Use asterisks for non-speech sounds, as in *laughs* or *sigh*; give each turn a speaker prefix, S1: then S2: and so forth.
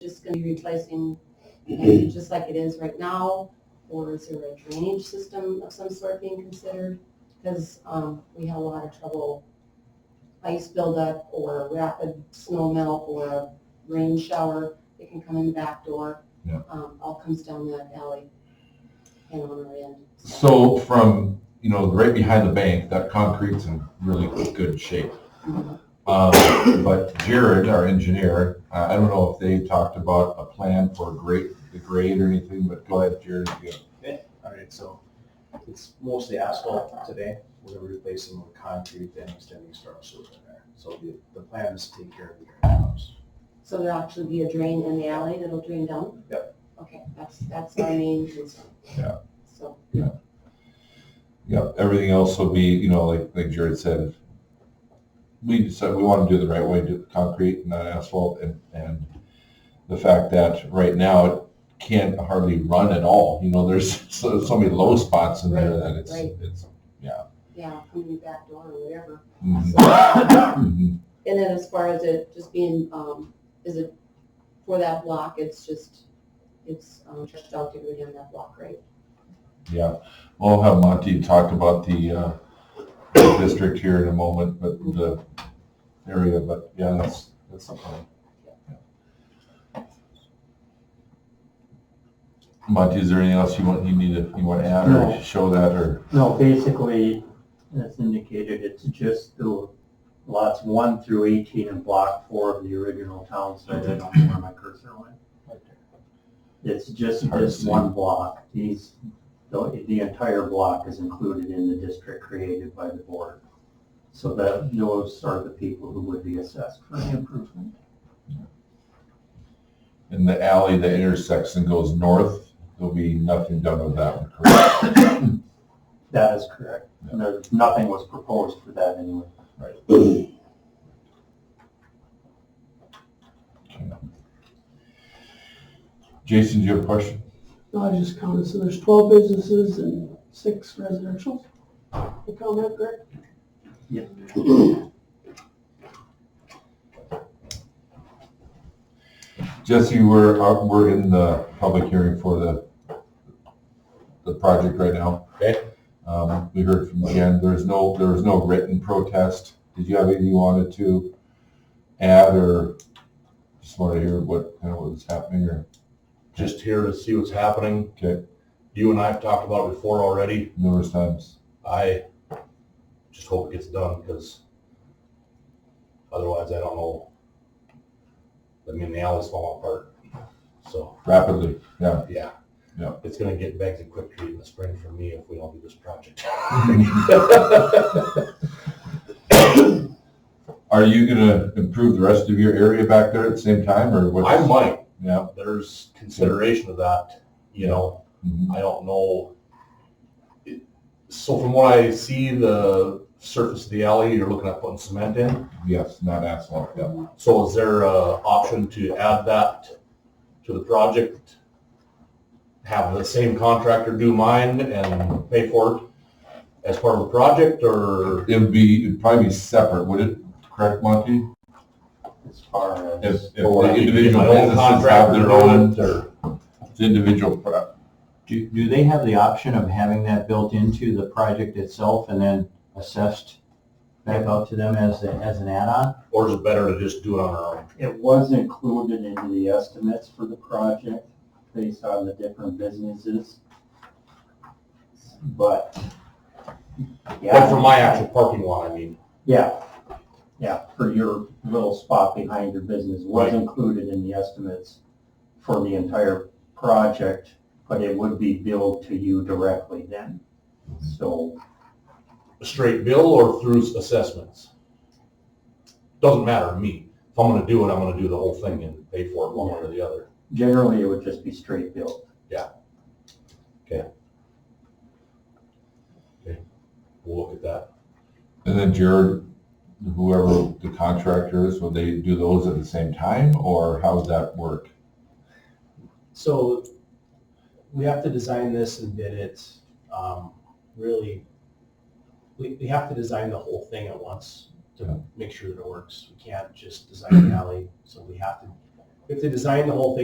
S1: just gonna be replacing, maybe just like it is right now? Or is there a drainage system of some sort being considered? Because, um, we have a lot of trouble, ice buildup or rapid snow melt or a rain shower, it can come in the back door.
S2: Yeah.
S1: Um, all comes down that alley and on our end.
S2: So from, you know, right behind the bank, that concrete's in really good shape.
S1: Mhm.
S2: Uh, But Jared, our engineer, uh, I I don't know if they talked about a plan for grade, the grade or anything, but go ahead, Jared. if you-
S3: All right, so it's mostly asphalt today. We're gonna replace some with concrete and extending storm sewer in there. So the, the plan is to take care of the drain house.
S1: So there'll actually be a drain in the alley that'll drain down?
S3: Yep.
S1: Okay, that's, that's our main concern.
S2: Yeah.
S1: So,
S2: Yeah, everything else will be, you know, like, like Jared said, we decided we want to do it the right way, do the concrete, not asphalt, and, and the fact that right now it can't hardly run at all, you know, there's *laughs* so, so many low spots in there that it's,
S1: Right,
S2: it's,
S1: yeah, come in the back door or whatever.
S4: *coughs*
S2: mhm,
S1: So-
S2: mhm.
S1: And then as far as it just being, um, is it for that block, it's just, it's, um, just out to go down that block, right?
S2: Yeah, we'll have Monty talk about the, uh, the district here in a moment, but the area, but yeah, that's, that's something. Monty, is there anything else you want, you need to, you want to add
S5: No.
S2: or show that or?
S5: No, basically, as indicated, it's just the lots one through eighteen and block four of the original town site. I don't know where my cursor went. It's just
S2: Hard to
S5: this
S2: see.
S5: one block. These, the, the entire block is included in the district created by the board. So that, those are the people who would be assessed for the improvement.
S2: In the alley, the intersection goes north, there'll be nothing done with that one, correct?
S5: That is correct. And there's, nothing was proposed for that anyway.
S2: Okay. Jason, do you have a question?
S4: No, I just counted, so there's twelve businesses and six residential. I count that correct?
S2: Jesse, we're, uh, we're in the public hearing for the, the project right now.
S3: Okay.
S2: Um, we heard from Jen, there's no, there was no written protest. Did you have anything you wanted to add or just wanted to hear what, kind of what was happening or,
S6: just here to see what's happening.
S2: okay,
S6: You and I have talked about it before already.
S2: numerous times?
S6: I just hope it gets done because otherwise I don't know. I mean, the alley's falling apart. So,
S2: Rapidly, yeah.
S6: yeah.
S2: Yeah.
S6: It's gonna get back to quick treat in the spring for me if we don't do this project.
S2: Are you gonna improve the rest of your area back there at the same time or what's?
S6: I might.
S2: Yeah.
S6: There's consideration of that, you know.
S2: mhm.
S6: I don't know. It- So from what I see, the surface of the alley, you're looking at putting cement in.
S2: Yes, not asphalt, yeah.
S6: So is there a option to add that to the project? Have the same contractor do mine and pay for it as part of the project or?
S2: It would be, it'd probably be separate, would it, correct, Monty?
S5: As far as,
S2: If, if
S6: Or
S2: the
S6: I could
S2: individual
S6: get my own
S2: businesses have
S6: contractor
S2: their
S6: to do
S2: own,
S6: it, or-
S2: the individual, pro-
S5: do, do they have the option of having that built into the project itself and then assessed back out to them as, a- as an add-on?
S6: Or is it better to just do it on our own?
S5: It was included into the estimates for the project based on the different businesses. But.
S6: Like for my actual parking lot, I mean.
S5: Yeah, yeah, for your little spot behind your business was
S6: Right.
S5: included in the estimates for the entire project, but it would be billed to you directly then. So,
S6: a straight bill or through assessments. Doesn't matter to me. If I'm gonna do it, I'm gonna do the whole thing and pay for it one way or the other.
S5: generally, it would just be straight billed.
S6: We'll look at that.
S2: and then Jared, whoever the contractor is, would they do those at the same time, or how's that work?
S3: So we have to design this and bid it, um, really, we, we have to design the whole thing at once
S2: Yeah.
S3: to make sure that it works. We can't just design the alley, so we have to, we have to design the whole thing